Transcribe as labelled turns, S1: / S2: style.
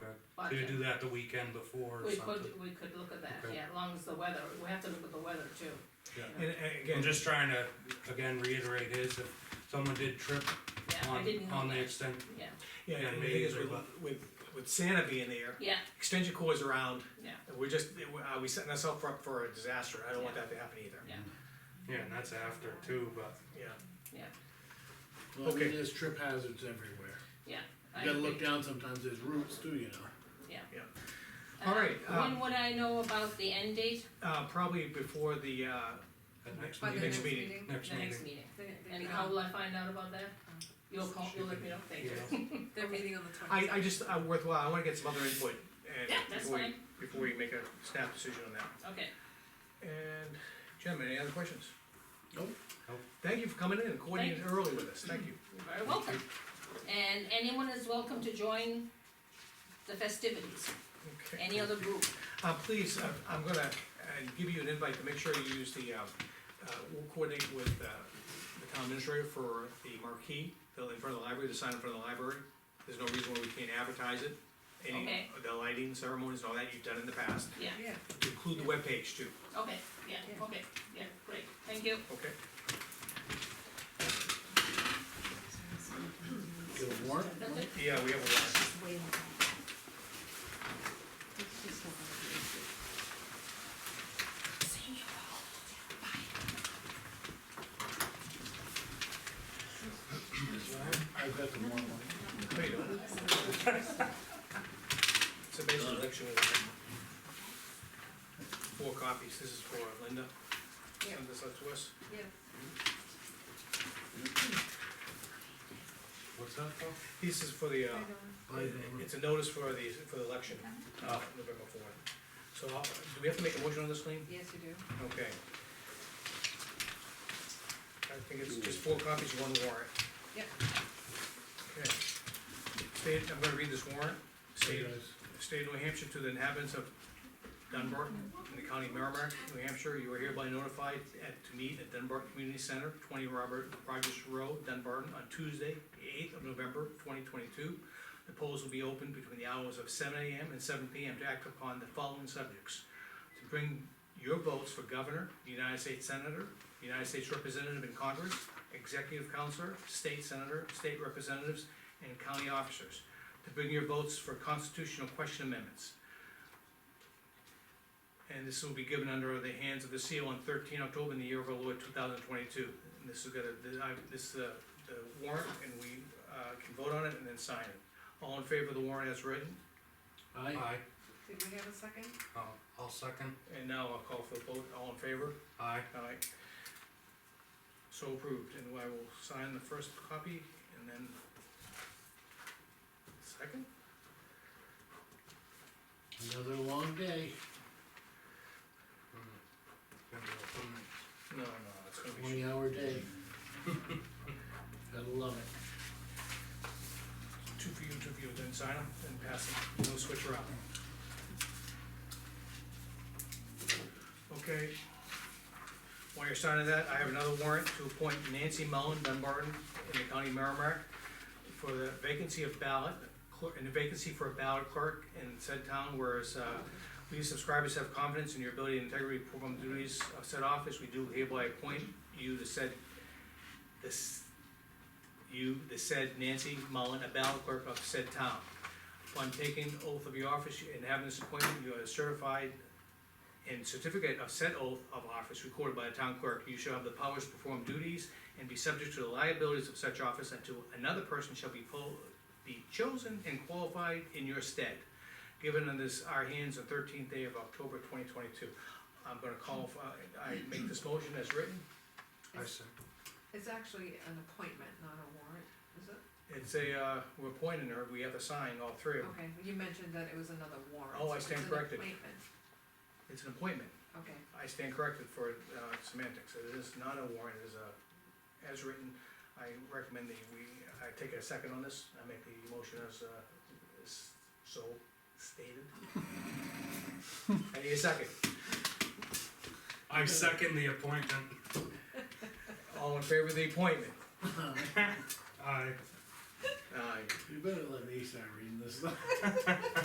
S1: Could you
S2: budget.
S1: do that the weekend before or
S2: We
S1: something?
S2: could, we could look at that,
S1: Okay.
S2: yeah, as long as the weather, we have to look at the weather too.
S1: Yeah.
S3: And uh,
S1: I'm
S3: again,
S1: just trying to, again, reiterate his, if someone did trip
S2: Yeah, I
S1: on,
S2: didn't know
S1: on the
S2: that,
S1: extent,
S2: yeah,
S3: yeah,
S1: yeah,
S3: and the
S1: maybe
S3: thing is
S1: they
S3: with,
S1: will.
S3: with, with Santa being there,
S2: yeah,
S3: extension cords around,
S2: yeah,
S3: we're just, are we setting ourselves up for a disaster? I don't want that to happen either,
S2: yeah,
S1: yeah, and that's after too, but
S3: yeah.
S2: yeah,
S4: Well, I mean,
S3: Okay.
S4: there's trip hazards everywhere.
S2: yeah. I
S4: You gotta look
S2: agree.
S4: down sometimes, there's roots too, you know.
S2: Uh,
S3: All right,
S1: um,
S3: uh,
S2: When would I know about the end date?
S3: Uh, probably before the, uh,
S1: at next
S5: By the
S1: meeting,
S3: next meeting.
S1: next
S2: The next
S1: meeting.
S2: meeting.
S5: They, they,
S2: And how
S5: um,
S2: will I find out about that? You'll call, you'll let me know, thank you.
S1: Yeah.
S5: they're meeting on the twenty
S3: I,
S5: second.
S3: I just, uh, worthwhile, I wanna get some other input. and
S2: Yeah, that's
S3: before we-
S2: fine.
S3: Before we make a snap decision on that.
S2: Okay,
S3: And gentlemen, any other questions?
S4: Nope.
S1: Nope.
S3: Thank you for coming in and coordinating early with us, thank you.
S2: you're very welcome. And anyone is welcome to join the festivities,
S3: Okay.
S2: any other group.
S3: Uh, please, uh, I'm gonna, uh, give you an invite to make sure you use the, uh, uh, we'll coordinate with, uh, the town administrator for the marquee, the, in front of the library, the sign in front of the library. There's no reason why we can't advertise it. Any,
S2: Okay.
S3: the lighting ceremonies and all that you've done in the past,
S5: Yeah,
S3: include the webpage too,
S2: Okay, yeah, okay, yeah, great, thank you.
S3: okay?
S4: Get a warrant,
S2: That's it.
S3: Yeah, we have a lot.
S4: I've got the warrant.
S3: No, you don't. It's a basic election. with Four copies, this is for Linda.
S5: Yeah.
S3: Send this out to us.
S5: yeah.
S1: What's that for?
S3: This is for the, uh,
S4: By the-
S3: it's a notice for the, for the election, uh, November fourth. So, I'll- do we have to make a motion on this, Lean?
S5: Yes, you do.
S3: Okay. I think it's just four copies, one warrant.
S5: Yep.
S3: Okay. State, I'm gonna read this warrant. State,
S4: Yes.
S3: State of New Hampshire to the inhabitants of Dunbar in the county of Merrimack, New Hampshire, you are hereby notified at, to meet at Dunbar Community Center, twenty Robert Rogers Road, Dunbar, on Tuesday, eighth of November, twenty twenty-two. The polls will be open between the hours of seven AM and seven PM to act upon the following subjects. To bring your votes for governor, United States Senator, United States Representative in Congress, Executive Counselor, State Senator, State Representatives, and County Officers to bring your votes for constitutional question amendments. And this will be given under the hands of the seal on thirteen October in the year of our Lord two thousand twenty-two. And this is gonna, the- I- this, uh, the warrant, and we, uh, can vote on it and then sign it. All in favor of the warrant as written,
S4: Aye.
S1: Aye,
S5: Did we have a second?
S1: I'll, I'll second,
S3: and now I'll call for the vote, all in favor?
S1: aye.
S3: Aye. So approved, and I will sign the first copy, and then second?
S4: Another long day.
S1: Gonna be a fun night.
S3: No, no, it's gonna be.
S4: Twenty hour day. Gotta love it.
S3: two for you, two for you, then sign them, then pass them, no switch around. Okay. While you're signing that, I have another warrant to appoint Nancy Mullen Dunbar in the county of Merrimack for the vacancy of ballot, clerk- and the vacancy for a ballot clerk in said town, whereas, uh, we subscribers have confidence in your ability and integrity to perform the duties of said office, we do hereby appoint you to said, this, you, the said Nancy Mullen, a ballot clerk of said town. Upon taking oath of your office and having this appointment, you are certified and certificate of said oath of office recorded by the town clerk. You shall have the powers to perform duties and be subject to the liabilities of such office until another person shall be po- be chosen and qualified in your stead. Given on this, our hands, the thirteenth day of October twenty twenty-two. I'm gonna call, for- I make this motion as written.
S1: I
S5: It's-
S1: second,
S5: It's actually an appointment, not a warrant, is it?
S3: It's a, uh, we're appointing her, we have to sign all three of them.
S5: Okay, you mentioned that it was another warrant.
S3: Oh, I
S5: so it's
S3: stand
S5: an
S3: corrected.
S5: appointment.
S3: It's an appointment.
S5: Okay,
S3: I stand corrected for uh, semantics. It is not a warrant, it is a, as written. I recommend that we, I take a second on this. I make the motion as, uh, as so stated. I need a second.
S1: I second the appointment,
S3: All in favor of the appointment?
S1: aye.
S3: Aye.
S4: You better let me start reading this stuff.